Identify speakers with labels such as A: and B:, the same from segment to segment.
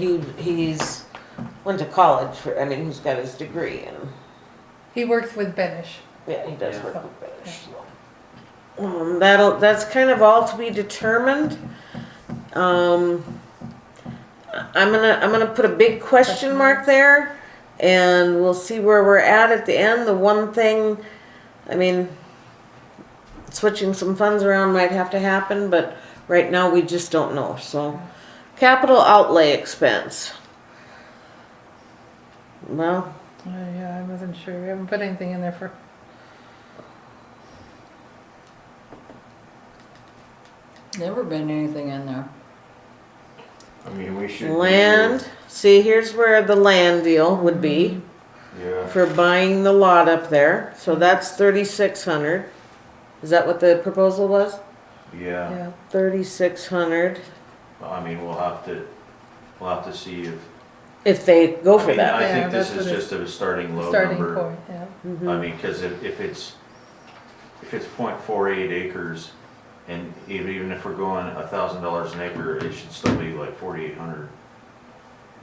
A: He, he's went to college for, I mean, he's got his degree and,
B: He works with Benish.
A: yeah, he does
C: Yeah.
A: work with British. Um, that'll, that's kind of all to be determined. Um, I- I'm gonna, I'm gonna put a big question mark there and we'll see where we're at at the end. The one thing, I mean, switching some funds around might have to happen, but right now we just don't know, so. Capital outlay expense. Well,
B: Oh, yeah, I wasn't sure. We haven't put anything in there for.
D: Never been anything in there.
C: I mean, we should. do-
A: land, see, here's where the land deal would be
C: Yeah,
A: for buying the lot up there, so that's thirty-six hundred. Is that what the proposal was?
C: yeah,
B: Yeah.
A: Thirty-six hundred,
C: Well, I mean, we'll have to, we'll have to see if.
A: if they go
C: I
A: for
C: mean,
A: that.
C: I
B: Yeah,
C: think this
B: that's
C: is
B: what
C: just a starting low
B: Starting
C: number.
B: point. Yeah.
A: Mm-hmm.
C: I mean, cause if, if it's, if it's point four eight acres, and even, even if we're going a thousand dollars an acre, it should still be like forty-eight hundred.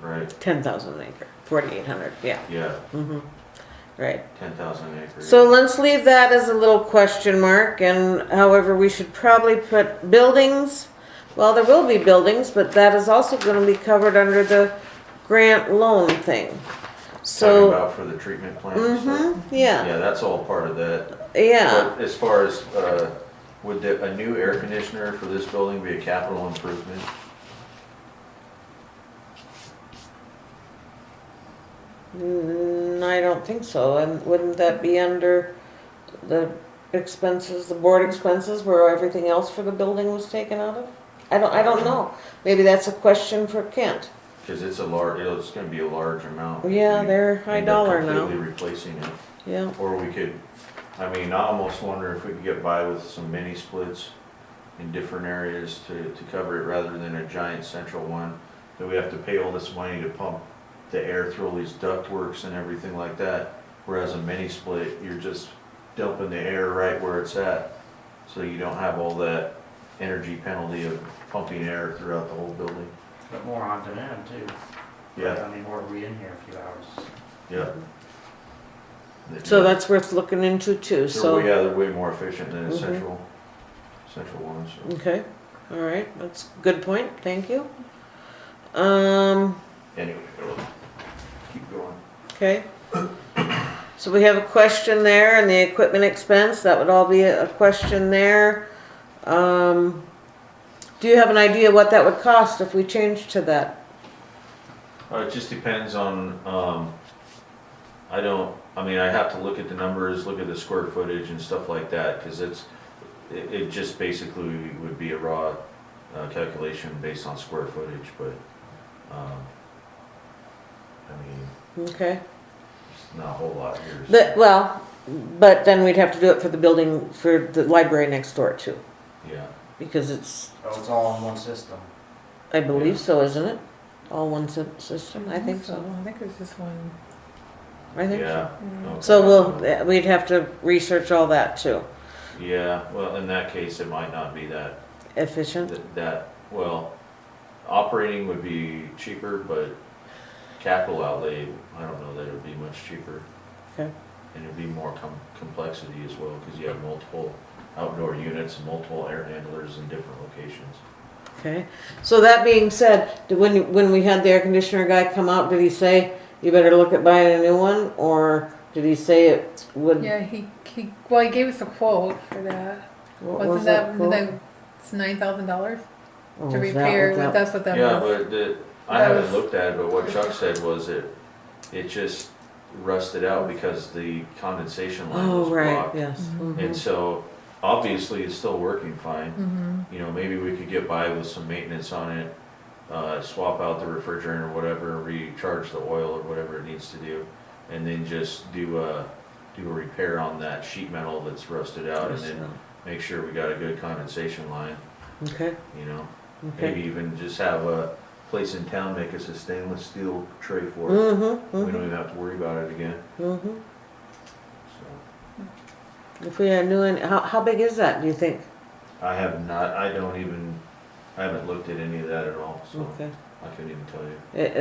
C: Right,
A: Ten thousand acre, forty-eight hundred, yeah, Mm-hmm.
C: yeah,
A: right.
C: ten thousand an acre.
A: So let's leave that as a little question mark, and however, we should probably put buildings, well, there will be buildings, but that is also gonna be covered under the grant loan thing.
C: Talking
A: So,
C: about for the treatment plant and stuff.
A: mm-hmm, yeah,
C: Yeah, that's all part of that.
A: yeah,
C: But as far as, uh, would the, a new air conditioner for this building be a capital improvement?
A: Mm, I don't think so, and wouldn't that be under the expenses, the board expenses, where everything else for the building was taken out of? I don't, I don't know, maybe that's a question for Kent,
C: Cause it's a large, it's gonna be a large amount.
A: Yeah,
C: We
A: they're high
C: end up
A: dollar now.
C: Completely replacing it,
A: yeah,
C: or we could, I mean, I almost wonder if we could get by with some mini splits in different areas to, to cover it rather than a giant central one. That we have to pay all this money to pump the air through all these ductworks and everything like that. Whereas a mini split, you're just dumping the air right where it's at. So you don't have all that energy penalty of pumping air throughout the whole building.
E: But more on demand too.
C: Yeah,
E: I mean, we're we in here a few hours.
C: yeah.
A: so that's worth looking into too, so.
C: They're way, yeah, they're way more efficient than
A: Mhm.
C: the central, central ones. so.
A: Okay, all right, that's a good point, thank you. Um,
C: Anyway, it'll- keep going.
A: okay. So we have a question there and the equipment expense, that would all be a a question there. Um, do you have an idea what that would cost if we changed to that?
C: Uh, it just depends on, um, I don't, I mean, I have to look at the numbers, look at the square footage and stuff like that, cause it's, it, it just basically would be a raw, uh, calculation based on square footage, but, um, I mean,
A: Okay,
C: it's not a whole lot here. so-
A: the, well, but then we'd have to do it for the building, for the library next door too,
C: Yeah,
A: because it's,
E: Oh, it's all in one system.
A: I believe so, isn't it? All one sy- system, I think so,
B: I think it's just one.
A: I think so.
C: yeah.
B: Mm.
C: okay.
A: So we'll, we'd have to research all that too.
C: Yeah, well, in that case, it might not be that
A: Efficient,
C: That, that, well, operating would be cheaper, but capital outlay, I don't know that it would be much cheaper.
A: Okay.
C: And it'd be more com- complexity as well, cause you have multiple outdoor units, multiple air handlers in different locations.
A: okay. So that being said, did- when, when we had the air conditioner guy come out, did he say, you better look at buying a new one? Or did he say it would?
B: Yeah, he, he well, he gave us a quote for that.
A: what was
B: Wasn't that,
A: quote?
B: that it's nine thousand dollars
A: Oh, was
B: to
A: that what
B: repair?
A: that-
B: That's what that
C: Yeah,
B: was.
C: but the, I
B: that
C: haven't
B: was-
C: looked at it, but what Chuck said was it, it just rusted out because the condensation line was
A: Oh, right,
C: blocked.
A: yes.
C: And
A: mhm.
C: so, obviously, it's still working fine.
B: hmm
C: you know, maybe we could get by with some maintenance on it, uh, swap out the refrigerant or whatever, recharge the oil or whatever it needs to do, and then just do a, do a repair on that sheet metal that's rusted out and then make sure we got a good condensation line,
A: Okay,
C: you know? Maybe
A: okay.
C: even just have a place in town make us a stainless steel tray for it.
A: Mm-hmm,
C: We
A: mm-hmm,
C: don't even have to worry about it again,
A: mm-hmm.
C: so.
A: If we had a new one, how, how big is that, do you think?
C: I have not, I don't even, I haven't looked at any of that at all, so
A: Okay,
C: I I couldn't even tell you.
A: It,